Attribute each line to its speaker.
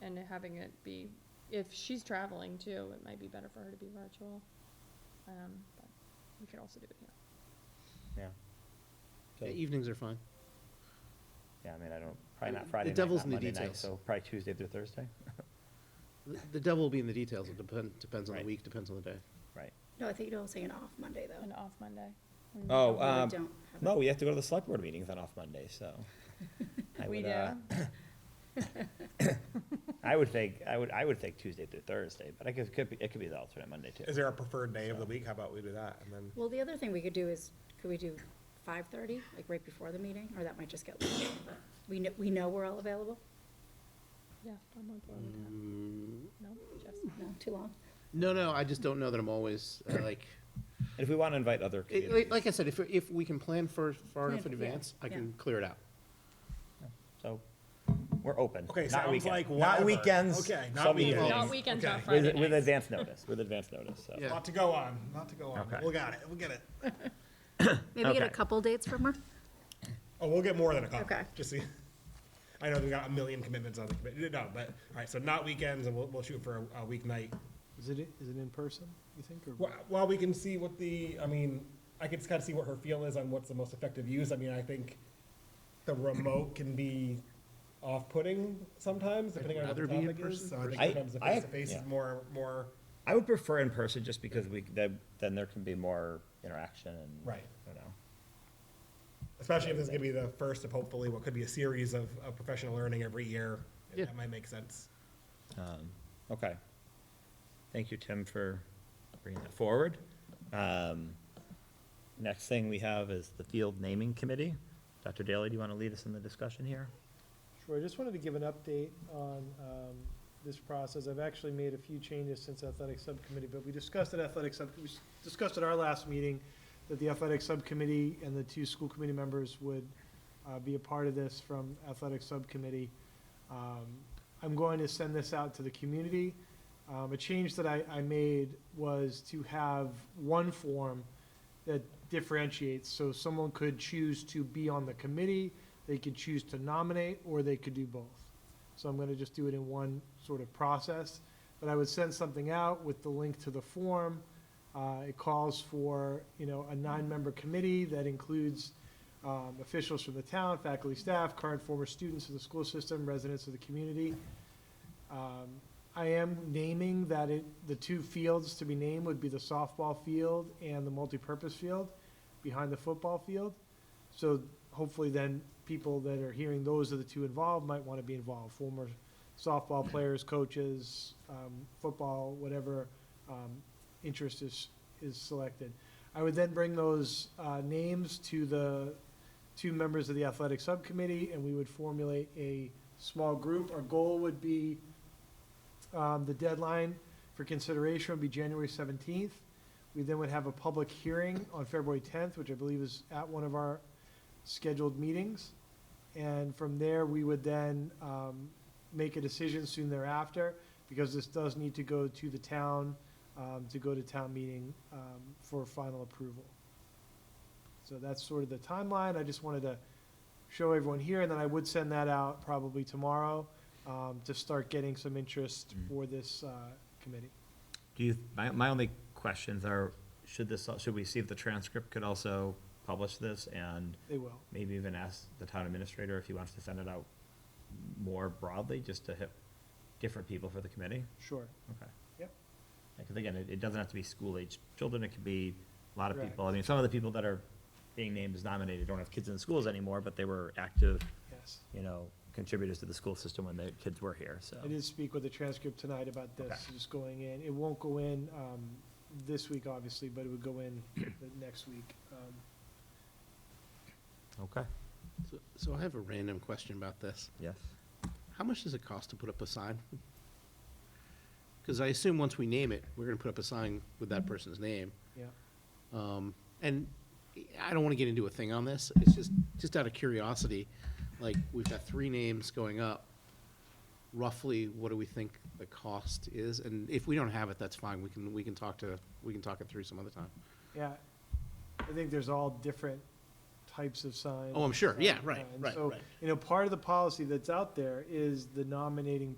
Speaker 1: and having it be, if she's traveling too, it might be better for her to be virtual. Um, but we could also do it here.
Speaker 2: yeah,
Speaker 3: Yeah,
Speaker 2: So-
Speaker 3: Evenings are fine.
Speaker 2: yeah, I mean, I don't, probably
Speaker 3: The-
Speaker 2: not
Speaker 3: the
Speaker 2: Friday night,
Speaker 3: devil's
Speaker 2: not
Speaker 3: in the
Speaker 2: Monday night,
Speaker 3: details.
Speaker 2: so probably Tuesday through Thursday,
Speaker 3: The- The devil will be in the details. It depend, depends on the
Speaker 2: Right.
Speaker 3: week, depends on the day.
Speaker 2: right?
Speaker 4: No, I think you're all saying off Monday, though.
Speaker 1: An off Monday. We may-
Speaker 2: Oh,
Speaker 4: We really
Speaker 2: um,
Speaker 4: don't have
Speaker 2: no,
Speaker 4: it.
Speaker 2: we have to go to the select board meetings on off Monday, so. I
Speaker 1: We
Speaker 2: would,
Speaker 1: do?
Speaker 2: uh, I would think, I would, I would think Tuesday through Thursday, but I guess it could be, it could be the alternate Monday too.
Speaker 5: Is there a preferred day of the week? How about we do that? And then,
Speaker 4: Well, the other thing we could do is, could we do five-thirty, like right before the meeting, or that might just get late? We know, we know we're all available?
Speaker 1: Yeah, I'm on board with that.
Speaker 3: Mm.
Speaker 1: No, Jeff's.
Speaker 4: No, too long?
Speaker 3: No, no, I just don't know that I'm always, uh, like,
Speaker 2: And if we want to invite other
Speaker 3: it- like,
Speaker 2: communities,
Speaker 3: like I said, if, if we can plan for, far enough in
Speaker 4: Plan, yeah,
Speaker 3: advance, I
Speaker 4: yeah.
Speaker 3: can clear it out.
Speaker 2: so we're open.
Speaker 5: okay,
Speaker 2: Not
Speaker 5: sounds
Speaker 2: weekends.
Speaker 5: like
Speaker 2: Not
Speaker 5: whatever.
Speaker 2: weekends.
Speaker 5: Okay,
Speaker 2: some
Speaker 5: not weekends.
Speaker 1: Not weekends, not
Speaker 5: Okay.
Speaker 1: Friday
Speaker 2: With, with
Speaker 1: nights.
Speaker 2: advance notice, with advance notice, so.
Speaker 3: Yeah.
Speaker 5: Not to go on, not to go on.
Speaker 2: Okay.
Speaker 5: We'll got it, we'll get it.
Speaker 4: Maybe get a
Speaker 2: Okay.
Speaker 4: couple dates from her?
Speaker 5: Oh, we'll get more than a couple.
Speaker 4: Okay.
Speaker 5: Just see. I know we got a million commitments on the committee. No, but, all right, so not weekends and we'll, we'll shoot for a, a weeknight.
Speaker 6: Is it, is it in person, you think, or?
Speaker 5: Well, while we can see what the, I mean, I could kind of see what her feel is on what's the most effective use. I mean, I think the remote can be off-putting sometimes, depending on what the
Speaker 3: rather be in
Speaker 5: topic is.
Speaker 3: person
Speaker 5: So I think
Speaker 2: I-
Speaker 5: sometimes the
Speaker 2: I-
Speaker 5: face-to-face
Speaker 2: yeah.
Speaker 5: is more, more,
Speaker 2: I would prefer in person just because we, then, then there can be more interaction and.
Speaker 5: Right.
Speaker 2: You know.
Speaker 5: especially if this is gonna be the first of hopefully what could be a series of, of professional learning every year.
Speaker 3: Yeah.
Speaker 5: That might make sense.
Speaker 2: Um, Okay. Thank you, Tim, for bringing that forward. Um, Next thing we have is the Field Naming Committee. Dr. Daly, do you want to lead us in the discussion here?
Speaker 6: Sure, I just wanted to give an update on um, this process. I've actually made a few changes since athletic subcommittee, but we discussed at athletic sub, we s- discussed at our last meeting that the athletic subcommittee and the two school committee members would uh, be a part of this from athletic subcommittee. Um, I'm going to send this out to the community. Um, A change that I, I made was to have one form that differentiates, so someone could choose to be on the committee, they could choose to nominate, or they could do both. So I'm gonna just do it in one sort of process, but I would send something out with the link to the form. Uh, it calls for, you know, a nine-member committee that includes, um, officials from the town, faculty, staff, current, former students of the school system, residents of the community. Um, I am naming that it, the two fields to be named would be the softball field and the multipurpose field behind the football field. So hopefully then people that are hearing those are the two involved might want to be involved, former softball players, coaches, um, football, whatever, um, interest is, is selected. I would then bring those, uh, names to the two members of the athletic subcommittee and we would formulate a small group. Our goal would be, um, the deadline for consideration would be January seventeenth. We then would have a public hearing on February tenth, which I believe is at one of our scheduled meetings. And from there, we would then um, make a decision soon thereafter, because this does need to go to the town, um, to go to town meeting um, for final approval. So that's sort of the timeline. I just wanted to show everyone here, and then I would send that out probably tomorrow um, to start getting some interest for this uh, committee.
Speaker 2: Do you, my, my only questions are, should this, should we see if the transcript could also publish this and
Speaker 6: They will.
Speaker 2: maybe even ask the town administrator if he wants to send it out more broadly, just to hit different people for the committee?
Speaker 6: Sure.
Speaker 2: Okay.
Speaker 6: Yep.
Speaker 2: Because again, it, it doesn't have to be school-aged children, it could be a lot of
Speaker 6: Correct.
Speaker 2: people. I mean, some of the people that are being named as nominated don't have kids in the schools anymore, but they were active,
Speaker 6: Yes.
Speaker 2: you know, contributors to the school system when their kids were here, so.
Speaker 6: I did speak with the transcript tonight about this,
Speaker 2: Okay.
Speaker 6: just going in. It won't go in um, this week, obviously, but it would go in the next week. Um,
Speaker 2: Okay,
Speaker 3: So- So I have a random question about this.
Speaker 2: yes.
Speaker 3: How much does it cost to put up a sign? Because I assume once we name it, we're gonna put up a sign with
Speaker 4: Mm-hmm.
Speaker 3: that person's name.
Speaker 6: Yeah.
Speaker 3: Um, and I don't want to get into a thing on this. It's just, just out of curiosity, like, we've got three names going up. Roughly, what do we think the cost is? And if we don't have it, that's fine. We can, we can talk to, we can talk it through some other time.
Speaker 6: Yeah, I think there's all different types of signs.
Speaker 3: Oh, I'm sure. Yeah,
Speaker 6: sign
Speaker 3: right,
Speaker 6: designs.
Speaker 3: right,
Speaker 6: So,
Speaker 3: right.
Speaker 6: you know, part of the policy that's out there is the nominating